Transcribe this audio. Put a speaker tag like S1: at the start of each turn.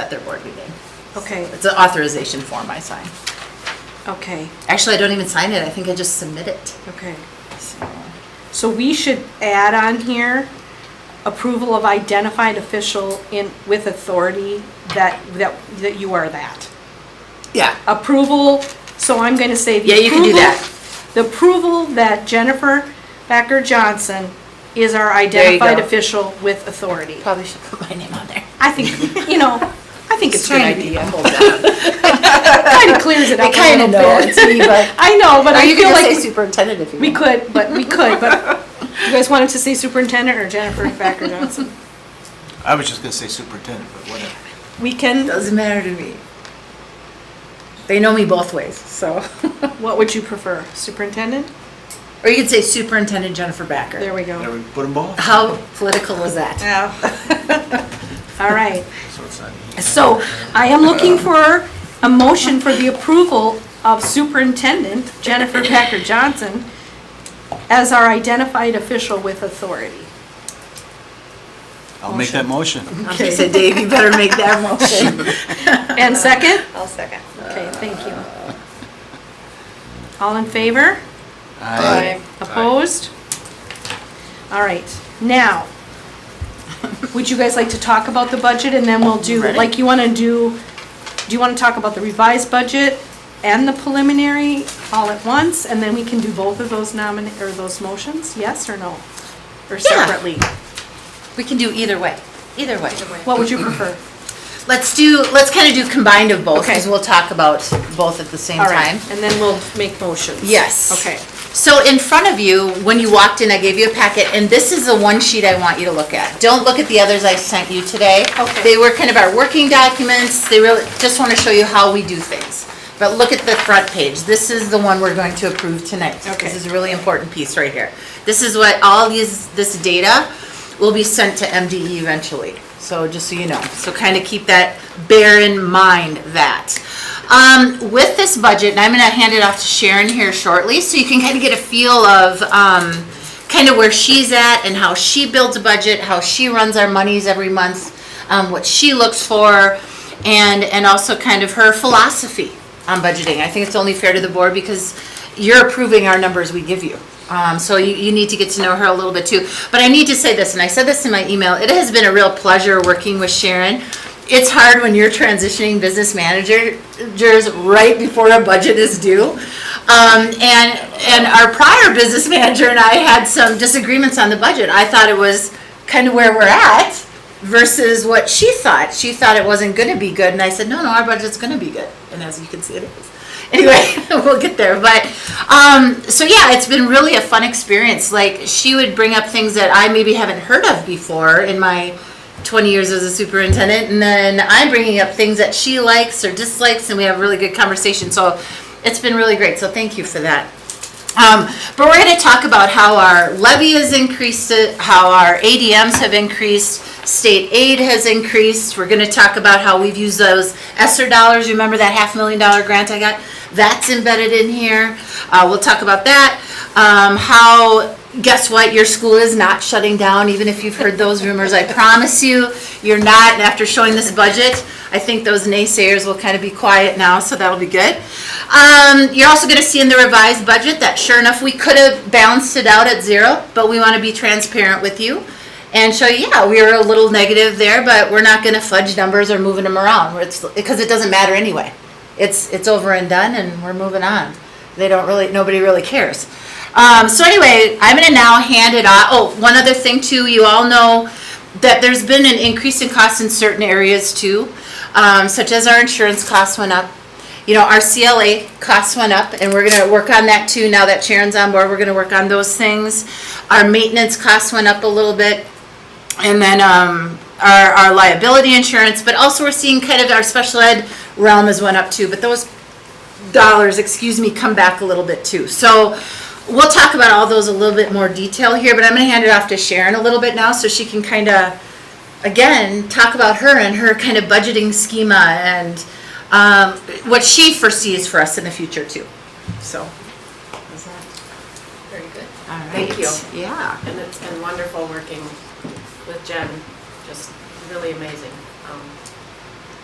S1: at their board meeting.
S2: Okay,
S1: It's an authorization form I sign.
S2: okay,
S1: Actually, I don't even sign it, I think I just submit it.
S2: okay.
S1: So,
S2: So we should add on here, approval of identified official in, with authority that, that, that you are that.
S1: Yeah,
S2: Approval, so I'm gonna say the
S1: Yeah, you can do
S2: approval-
S1: that.
S2: The approval that Jennifer Becker Johnson is our
S1: you go.
S2: identified official with authority.
S1: probably should put my name on there.
S2: I think, you know, I think it's a good idea.
S1: I
S2: Kind of clears it up a
S1: kind
S2: little
S1: of know
S2: bit.
S1: it's me, but.
S2: I know, but
S1: Or
S2: I
S1: you
S2: feel
S1: can just say
S2: like
S1: superintendent if you
S2: we
S1: want.
S2: could, but we could, but you guys wanted to say superintendent or Jennifer Becker Johnson?
S3: I was just gonna say superintendent, but whatever.
S2: We can,
S1: Doesn't matter to me. They know me both ways, so.
S2: what would you prefer, superintendent?
S1: Or you could say Superintendent Jennifer Backer.
S2: There we
S3: There
S2: go.
S3: we put them both,
S1: How political was that?
S2: Yeah. All right.
S3: so it's not.
S2: So I am looking for a motion for the approval of Superintendent Jennifer Packer Johnson as our identified official with authority.
S3: I'll make that motion.
S1: I said, Dave, you better make that motion.
S2: And second?
S4: I'll second.
S2: Okay, thank you. All in favor?
S3: Aye.
S2: Opposed? All right, now, would you guys like to talk about the budget and then we'll do,
S1: Ready?
S2: like, you want to do, do you want to talk about the revised budget and the preliminary all at once? And then we can do both of those nomin, or those motions, yes or no? Or separately?
S1: We can do either way, either way.
S2: What would you prefer?
S1: Let's do, let's kind of do combined of both, because
S2: Okay.
S1: we'll talk about both at the same
S2: All right,
S1: time.
S2: and then we'll make motions.
S1: Yes.
S2: Okay,
S1: So in front of you, when you walked in, I gave you a packet, and this is the one sheet I want you to look at. Don't look at the others I sent you today.
S2: Okay.
S1: They were kind of our working documents, they really, just want to show you how we do things. But look at the front page, this is the one we're going to approve tonight.
S2: Okay.
S1: This is a really important piece right here. This is what, all these, this data will be sent to MDE eventually, so just so you know. So kind of keep that, bear in mind that. Um, with this budget, and I'm gonna hand it off to Sharon here shortly, so you can kind of get a feel of, um, kind of where she's at and how she builds a budget, how she runs our monies every month, um, what she looks for, and, and also kind of her philosophy on budgeting. I think it's only fair to the board because you're approving our numbers we give you. Um, so you, you need to get to know her a little bit too. But I need to say this, and I said this in my email, it has been a real pleasure working with Sharon. It's hard when you're transitioning business managers right before a budget is due. Um, and, and our prior business manager and I had some disagreements on the budget. I thought it was kind of where we're at versus what she thought. She thought it wasn't gonna be good, and I said, no, no, our budget's gonna be good. And as you can see, it is. Anyway, we'll get there, but, um, so yeah, it's been really a fun experience. Like, she would bring up things that I maybe haven't heard of before in my 20 years as a superintendent and then i'm bringing up things that she likes or dislikes and we have really good conversation so it's been really great so thank you for that um, but we're going to talk about how our levy has increased, uh, how our ADMs have increased, state aid has increased. We're going to talk about how we've used those ESSER dollars. Remember that half million dollar grant I got? That's embedded in here. Uh, we'll talk about that. Um, how, guess what? Your school is not shutting down, even if you've heard those rumors. I promise you, you're not. And after showing this budget, I think those naysayers will kind of be quiet now, so that'll be good. Um, you're also gonna see in the revised budget that sure enough, we could have balanced it out at zero, but we wanna be transparent with you and show you, yeah, we were a little negative there, but we're not gonna fudge numbers or moving them around, where it's, because it doesn't matter anyway. It's, it's over and done and we're moving on. They don't really, nobody really cares. Um, so anyway, I'm gonna now hand it off, oh, one other thing too, you all know that there's been an increase in costs in certain areas too, um, such as our insurance costs went up. You know, our CLA costs went up, and we're gonna work on that too, now that Sharon's on board, we're gonna work on those things. Our maintenance costs went up a little bit, and then, um, our, our liability insurance, but also we're seeing kind of our special ed realm has went up too, but those dollars, excuse me, come back a little bit too. So we'll talk about all those a little bit more detail here, but I'm gonna hand it off to Sharon a little bit now so she can kind of, again, talk about her and her kind of budgeting schema and um, what she foresees for us in the future too, so. is that
S4: Very good.
S1: all
S4: Thank
S1: right?
S4: you.
S1: Yeah,
S4: And it's been wonderful working with Jen, just really amazing. Um,